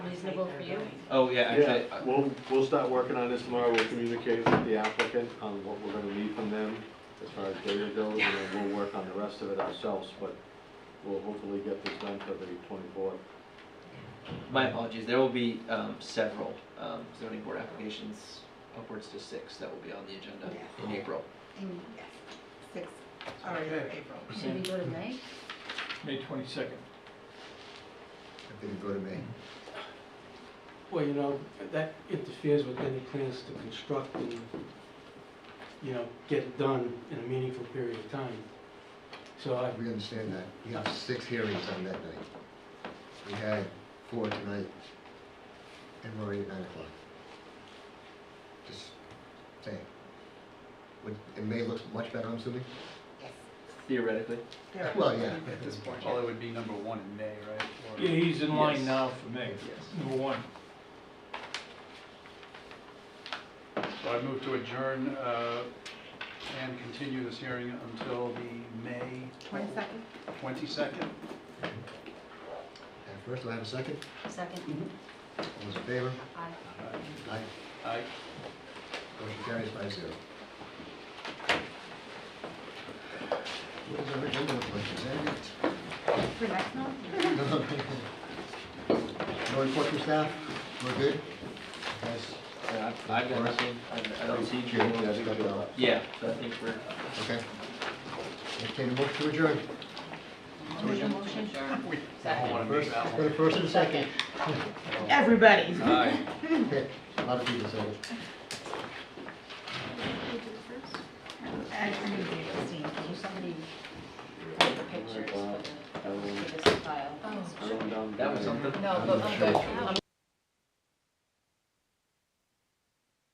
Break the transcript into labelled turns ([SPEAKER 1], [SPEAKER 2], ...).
[SPEAKER 1] reasonable for you?
[SPEAKER 2] Oh, yeah,
[SPEAKER 3] Yeah,
[SPEAKER 2] actually, uh,
[SPEAKER 3] we'll, we'll start working on this tomorrow, we'll communicate with the applicant on what we're gonna need from them as far as data goes, and then we'll work on the rest of it ourselves, but we'll hopefully get this done for the twenty-fourth.
[SPEAKER 2] my apologies, there will be um, several um, zoning board applications, upwards to six, that will be on the agenda in April.
[SPEAKER 4] And yes, six, already in
[SPEAKER 5] Okay.
[SPEAKER 4] April.
[SPEAKER 1] Should we go to May?
[SPEAKER 5] May twenty-second.
[SPEAKER 6] I think go to May.
[SPEAKER 7] Well, you know, that interferes with any plans to construct and, you know, get it done in a meaningful period of time. So I,
[SPEAKER 6] We understand that. We have six hearings on that night. We had four tonight, and we're already at nine o'clock. Just saying. Would- It may look much better, I'm assuming?
[SPEAKER 4] Yes.
[SPEAKER 2] Theoretically,
[SPEAKER 4] there are
[SPEAKER 6] Well, yeah.
[SPEAKER 4] at this point.
[SPEAKER 8] Well, it would be number one in May, right? Or-
[SPEAKER 5] Yeah, he's in
[SPEAKER 2] Yes.
[SPEAKER 5] line now for May,
[SPEAKER 2] Yes.
[SPEAKER 5] number one.
[SPEAKER 8] So I move to adjourn uh, and continue this hearing until the May
[SPEAKER 4] Twenty-second?
[SPEAKER 8] 22nd.
[SPEAKER 6] And first, do I have a second?
[SPEAKER 1] Second?
[SPEAKER 6] All those in favor?
[SPEAKER 1] Aye.
[SPEAKER 6] Aye.
[SPEAKER 8] Aye.
[SPEAKER 6] Motion carries five zero. What is our agenda look like? Is that it?
[SPEAKER 4] For next month?
[SPEAKER 6] No report from staff? We're good? Yes.
[SPEAKER 2] Uh, I've I've got nothing, I I don't see
[SPEAKER 6] Yeah, I think we're all-
[SPEAKER 2] Yeah, so I think we're.
[SPEAKER 6] Okay. Entertained a motion to adjourn.
[SPEAKER 1] Make a motion, sure.
[SPEAKER 8] We
[SPEAKER 1] Second.
[SPEAKER 8] don't want to miss that
[SPEAKER 6] For the
[SPEAKER 8] one.
[SPEAKER 6] first and second.
[SPEAKER 4] Everybody.
[SPEAKER 8] Aye.
[SPEAKER 6] Okay, A lot of people said it.
[SPEAKER 4] And I'm gonna be abstaining.
[SPEAKER 1] Can somebody take the pictures for the, for this file?
[SPEAKER 3] down.
[SPEAKER 2] That was something.
[SPEAKER 1] No, but I'm good, I'm